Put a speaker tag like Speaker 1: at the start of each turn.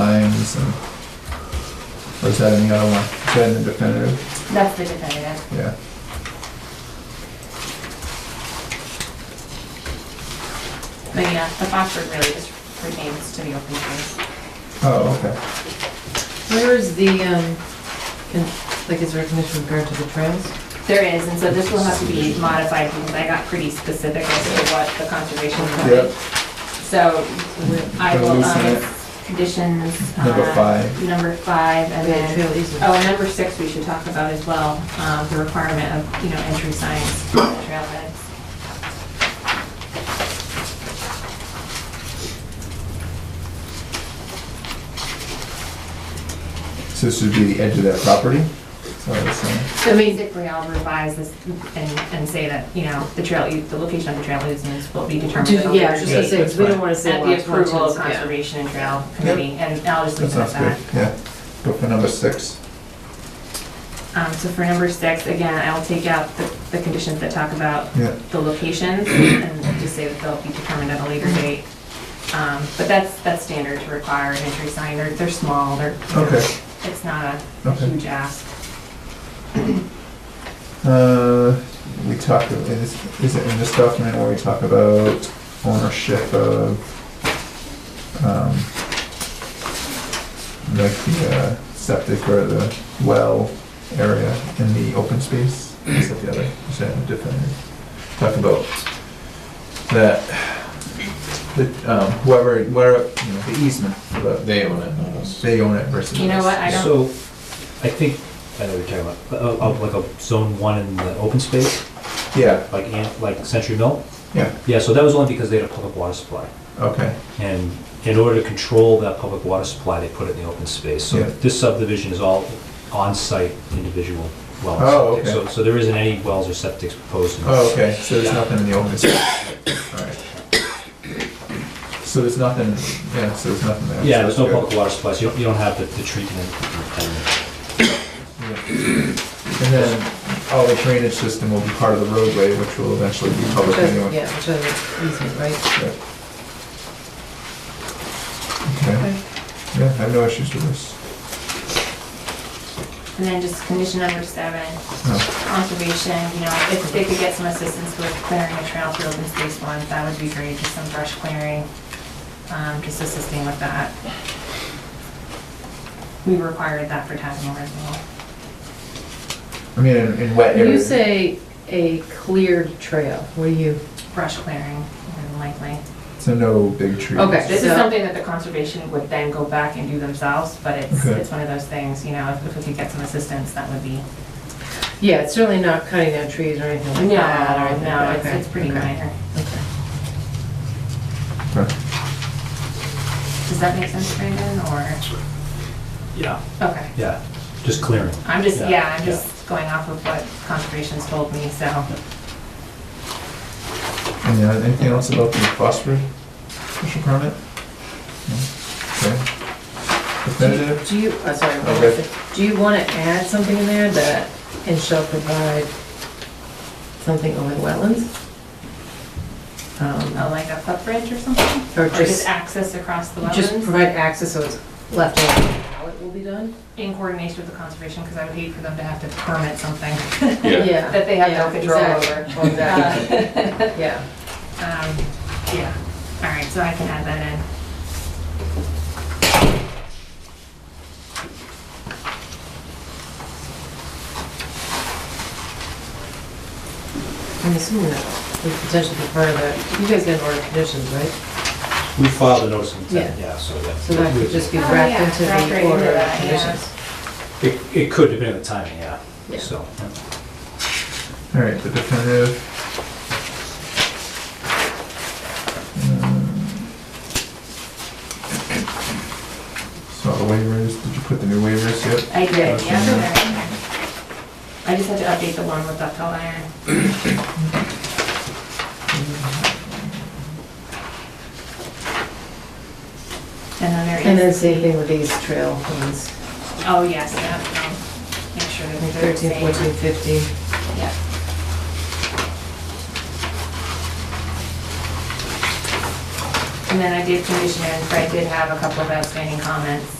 Speaker 1: times and, or is that in the other one? Is that in the definitive?
Speaker 2: That's the definitive.
Speaker 1: Yeah.
Speaker 2: But yeah, the Foxford really just pertains to the open space.
Speaker 1: Oh, okay.
Speaker 3: Where is the, um, con- like, is there a condition with regard to the trails?
Speaker 2: There is, and so this will have to be modified because I got pretty specific as to what the conservation
Speaker 1: Yep.
Speaker 2: wanted. So I will,
Speaker 1: Loosen
Speaker 2: um,
Speaker 1: it.
Speaker 2: conditions.
Speaker 1: Number
Speaker 2: uh,
Speaker 1: five.
Speaker 2: Number five, and
Speaker 3: Yeah,
Speaker 2: then,
Speaker 3: trail easement.
Speaker 2: oh, and number six we should talk about as well, um, the requirement of, you know, entry signs, for the trailheads.
Speaker 1: So this would be the edge of that property? So I was saying,
Speaker 2: So basically, I'll revise this and, and say that, you know, the trail, the location of the trail easement will be determined.
Speaker 3: Do- Oh, Yeah, I was just gonna
Speaker 1: Yeah,
Speaker 3: say,
Speaker 1: that's
Speaker 3: 'cause we don't
Speaker 1: fine.
Speaker 3: wanna
Speaker 2: At
Speaker 3: say
Speaker 2: the
Speaker 3: lots one, two,
Speaker 2: approval of
Speaker 3: and- yeah.
Speaker 2: Conservation and Trail Committee, and I'll just
Speaker 1: that
Speaker 2: leave it at
Speaker 1: sounds good,
Speaker 2: that.
Speaker 1: yeah. Go for number six.
Speaker 2: Um, so for number six, again, I'll take out the, the conditions that talk about
Speaker 1: Yeah.
Speaker 2: the locations and just say that they'll be determined at a later date. Um, but that's, that's standard to require an entry sign, they're, they're small, they're, you know,
Speaker 1: Okay.
Speaker 2: it's not a
Speaker 1: Okay.
Speaker 2: huge ask.
Speaker 1: Uh, we talked, is, is it in this document where we talk about ownership of, um, like the uh, septic or the well area in the open space? Is that the other, is that a different? Talk about that, that, um, whoever, where, you know, the easement, for the-
Speaker 4: They own it, not us.
Speaker 1: they own it versus.
Speaker 2: You know
Speaker 1: us.
Speaker 2: what, I don't,
Speaker 5: So, I think, I know what you're talking about, uh, uh, like a zone one in the open space,
Speaker 1: Yeah,
Speaker 5: like, Ant- like Century Mill?
Speaker 1: yeah,
Speaker 5: Yeah, so that was only because they had a public water supply.
Speaker 1: okay,
Speaker 5: And in order to control that public water supply, they put it in the open space. So
Speaker 1: Yeah.
Speaker 5: this subdivision is all on-site individual well
Speaker 1: Oh,
Speaker 5: and septic.
Speaker 1: okay.
Speaker 5: So, so there isn't any wells or septics proposed in this.
Speaker 1: Oh, okay, so there's nothing in the open space. Alright. So there's nothing, yeah, so there's nothing there.
Speaker 5: Yeah, there's
Speaker 1: so
Speaker 5: no
Speaker 1: that's
Speaker 5: public water supply, so you don't, you don't have the, the treatment.
Speaker 1: good. And then all the drainage system will be part of the roadway, which will eventually be public
Speaker 3: Trail-
Speaker 1: anyway.
Speaker 3: Yeah, which is easement, right?
Speaker 1: Yeah. Okay, yeah, I have no issues with this.
Speaker 2: and then just condition number seven,
Speaker 1: No,
Speaker 2: conservation, you know, if they could get some assistance with clearing a trail through open space ones, that would be great, just some brush clearing, um, just assisting with that. We required that for Tasmore as well.
Speaker 1: I mean, in, in wet
Speaker 3: When you
Speaker 1: areas.
Speaker 3: say a cleared trail, what do you,
Speaker 2: Brush clearing, more than likely.
Speaker 1: So no big trees.
Speaker 3: Okay.
Speaker 2: This is
Speaker 3: So-
Speaker 2: something that the conservation would then go back and do themselves, but it's,
Speaker 1: Okay.
Speaker 2: it's one of those things, you know, if- if we could get some assistance, that would be.
Speaker 3: yeah, it's certainly not cutting down trees or anything like that. or
Speaker 2: No,
Speaker 3: anything.
Speaker 2: no, it's,
Speaker 3: Okay,
Speaker 2: it's pretty
Speaker 3: okay,
Speaker 2: minor.
Speaker 3: okay.
Speaker 1: Okay.
Speaker 2: Does that make sense, Brandon, or?
Speaker 5: Yeah.
Speaker 2: Okay.
Speaker 5: Yeah, just clearing.
Speaker 2: I'm just,
Speaker 5: Yeah,
Speaker 2: yeah, I'm
Speaker 5: yeah.
Speaker 2: just going off of what conservation's told me, so.
Speaker 1: And uh, anything else about the phosphorus special permit? No? Okay. Definitive?
Speaker 3: Do you, oh, sorry, one
Speaker 1: Okay.
Speaker 3: more thing. do you want to add something in there that, and shall provide something over the wetlands? Um,
Speaker 2: Oh, like a foot bridge or something?
Speaker 3: Or
Speaker 2: Or just
Speaker 3: just,
Speaker 2: access across the
Speaker 3: just
Speaker 2: wetlands?
Speaker 3: provide access so it's left open how it will be done?
Speaker 2: In coordination with the conservation, because I would hate for them to have to permit something
Speaker 4: Yeah,
Speaker 2: that they have no
Speaker 3: Yeah,
Speaker 2: control over.
Speaker 3: exactly, Exactly, yeah.
Speaker 2: Um, Yeah, all right, so I can add that in.
Speaker 3: I'm assuming that would potentially be part of that. You guys got order of conditions, right?
Speaker 5: We filed a notice of intent, yeah, so that.
Speaker 3: So that could just be
Speaker 2: Oh,
Speaker 3: wrapped
Speaker 2: yeah,
Speaker 3: into
Speaker 2: wrapped right
Speaker 3: the
Speaker 2: into
Speaker 3: order of
Speaker 2: that, yeah.
Speaker 3: conditions.
Speaker 5: It, it could, depending on the timing, yeah,
Speaker 3: Yeah.
Speaker 5: so. yeah.
Speaker 1: All right, the definitive. Uh, So the waivers, did you put the new waivers yet?
Speaker 2: I did,
Speaker 1: Okay.
Speaker 2: yeah. they're in there. I just had to update the one with ductile iron. And then there is.
Speaker 3: And then same thing with these trail ones,
Speaker 2: Oh, yes, yeah, um, make sure
Speaker 3: like
Speaker 2: that they're the
Speaker 3: 13,
Speaker 2: same.
Speaker 3: 14, 15.
Speaker 2: Yeah.
Speaker 3: I
Speaker 2: And then I did condition it, Fred did have a couple of outstanding comments.